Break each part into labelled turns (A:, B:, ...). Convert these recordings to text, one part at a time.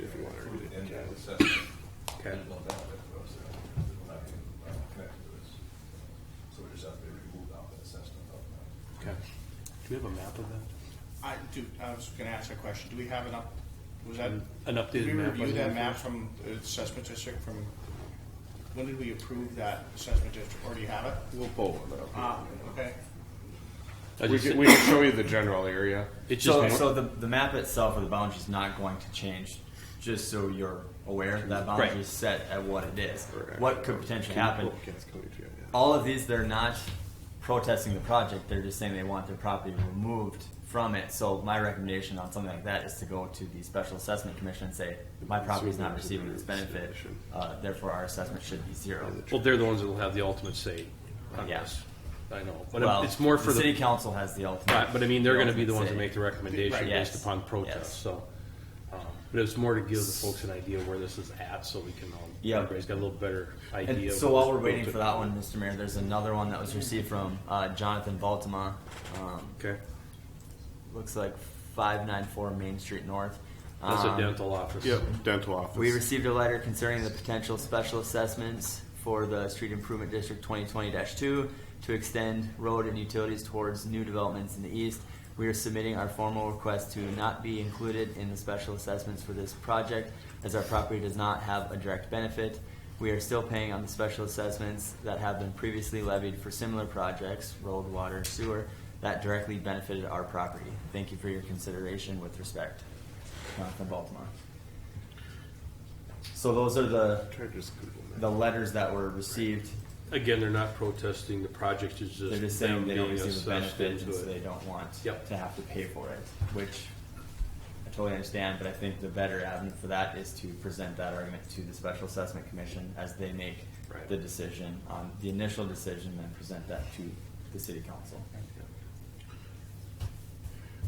A: uh, assessment.
B: Okay.
A: There's no benefit to us there. We're not getting, uh, connected to this. So we just have to be removed off the assessment of that.
B: Okay. Do we have a map of that?
C: I do, I was gonna ask a question, do we have an up, was that?
B: An updated
C: Did we
B: map
C: review
B: on
C: that
B: the-
C: map from the assessment district from, when did we approve that assessment district, or do you have it?
D: We'll pull one up.
C: Ah, okay,
B: I
D: We
B: just-
D: can, we can show you the general area.
B: It's just
E: So,
B: more-
E: so the, the map itself or the boundary is not going to change, just so you're aware that boundary
B: Right.
E: is set at what it is.
D: Correct.
E: What could potentially happen?
D: Well, it's coming to you, yeah.
E: All of these, they're not protesting the project, they're just saying they want their property removed from it. So my recommendation on something like that is to go to the Special Assessment Commission and say, my property is not receiving this benefit, uh, therefore our assessment should be zero.
B: well, they're the ones that will have the ultimate say on
E: Yeah.
B: this. I know, but
E: Well,
B: it's more for
E: the
B: the.
E: city council has the ultimate.
B: Right, but I mean, they're going to be the
E: ultimate
B: ones
E: say.
B: that make the recommendation
E: Right, yes.
B: based upon
E: Yes.
B: protest. So, um, but it's more to give the folks an idea where this is at, so we can all.
E: Yeah.
B: Everybody's got a little better idea.
E: And
B: of
E: so while
B: what's
E: we're waiting
B: built
E: for
B: in.
E: that one, Mr. Mayor, there's another one that was received from uh, Jonathan Valtema. Um,
B: Okay,
E: looks like 594 Main Street North.
B: that's a
E: Um,
B: dental office.
D: Yep, dental office.
E: We received a letter concerning the potential special assessments for the Street Improvement District 2020-2 to extend road and utilities towards new developments in the east. We are submitting our formal request to not be included in the special assessments for this project as our property does not have a direct benefit. We are still paying on the special assessments that have been previously levied for similar projects, road, water, sewer, that directly benefited our property. Thank you for your consideration with respect. Jonathan Baltimore. So those are the,
D: Try to just Google that.
E: the letters that were received.
B: Again, they're not protesting the project. It's just
E: They're just saying
B: them
E: they don't
B: being
E: receive a
B: assessed
E: benefit and
B: into
E: so
B: it.
E: they don't want
B: Yep.
E: to have to pay for it, which I totally understand, but I think the better avenue for that is to present that argument to the Special Assessment Commission as they make
B: Right.
E: the decision on the initial decision and present that to the city council.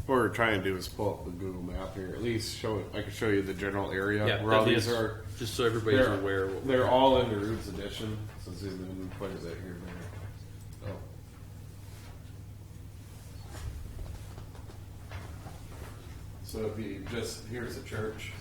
D: What we're trying to do is pull up the Google map here. At least show it. I can show you the general area
B: Yeah,
D: where all
B: that
D: these
B: is-
D: are.
B: just so everybody's
D: they're,
B: aware what we're-
D: they're all in the Roots Edition. So zoom in quite a bit here. There. Oh.
A: So it'd be just, here's the church,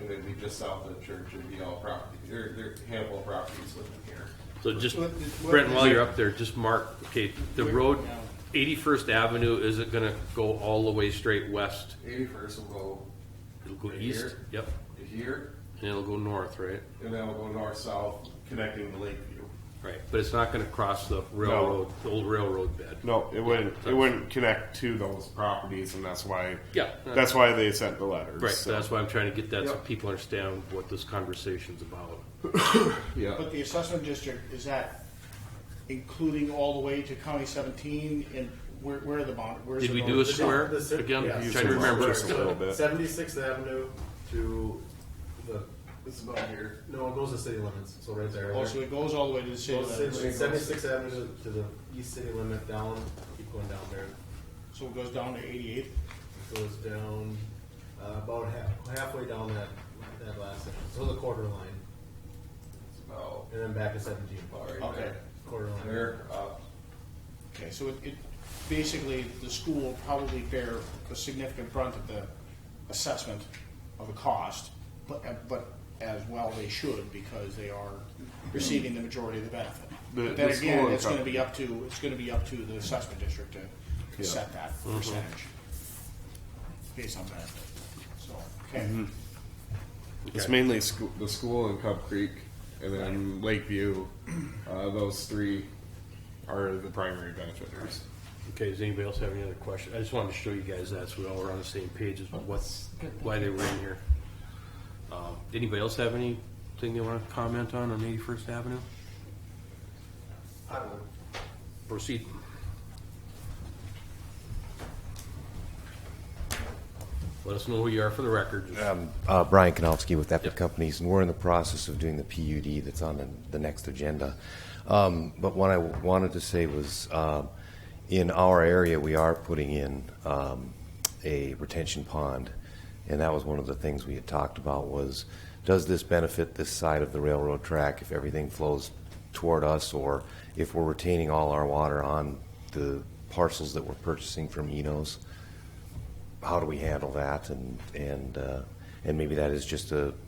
A: and then be just south of the church, it'd be all property, there, there, handful of properties within here.
B: So just,
C: What- what-
B: Brent, while you're up there, just mark, okay, the
C: Where-
B: road,
C: yeah.
B: eighty-first Avenue, is it gonna go all the way straight west?
A: Eighty-first will
B: It'll go
A: Right
B: east,
A: here?
B: yep,
A: go here,
B: and it'll go north, right?
A: and then we'll go north-south, connecting to Lakeview.
B: Right, but it's not gonna cross the railroad, the old railroad bed.
D: No, it wouldn't. It wouldn't connect to those properties, and that's why.
B: Yeah.
D: That's why they sent the letters.
B: Right, so that's why I'm trying to get that, so
D: Yep.
B: people understand what this conversation's about.
D: Yeah.
C: but the assessment district, is that including all the way to county seventeen, and where, where are the bond, where's the?
B: Did we do a
C: boundary?
B: square
F: The ci-
B: again?
F: yeah.
B: I'm Trying to remember.
D: Just a little bit.
F: Seventy-sixth Avenue to the,
A: It's about here.
F: no, it goes to city limits, so right there.
C: Oh, so it goes all the way to the city limits,
F: Seventy-sixth Avenue to the east city limit down, keep going down there.
C: so it goes down to eighty-eight,
F: It Goes down, uh, about half, halfway down that, that last section, so the quarter line,
A: It's about,
F: and then back to seventeen,
A: about right
C: okay.
A: there.
F: quarter line.
A: There, up,
C: Okay, so it, it, basically, the school will probably bear a significant brunt of the assessment of the cost, but, uh, but as well they should, because they are receiving the majority of the benefit.
D: The-
C: But then
D: the school
C: again,
D: and
C: it's gonna
D: company.
C: be up to, it's gonna be up to the assessment district to- to
D: Yeah. Mm-hmm.
C: set that percentage based on benefit, so, okay.
D: Mm-hmm. It's
B: Okay.
D: mainly school, the school in Cub Creek, and then Lakeview. Uh, those three are the primary benefactors.
B: Okay, does anybody else have any other questions? I just wanted to show you guys that, so we all were on the same page as what's, why they were in here. Um, Anybody else have anything they wanna comment on on Eighty-first Avenue?
F: I would
B: Proceed. Let us know who you are for the record. Just-
G: Um, uh, Brian Kanofsky with Epic
B: Yep.
G: Companies, and we're in the process of doing the PUD that's on the, the next agenda. Um, but what I w- wanted to say was, um, in our area, we are putting in um, a retention pond, and that was one of the things we had talked about was, does this benefit this side of the railroad track if everything flows toward us, or if we're retaining all our water on the parcels that we're purchasing from Enos? how do we handle that and and uh, and maybe that is just a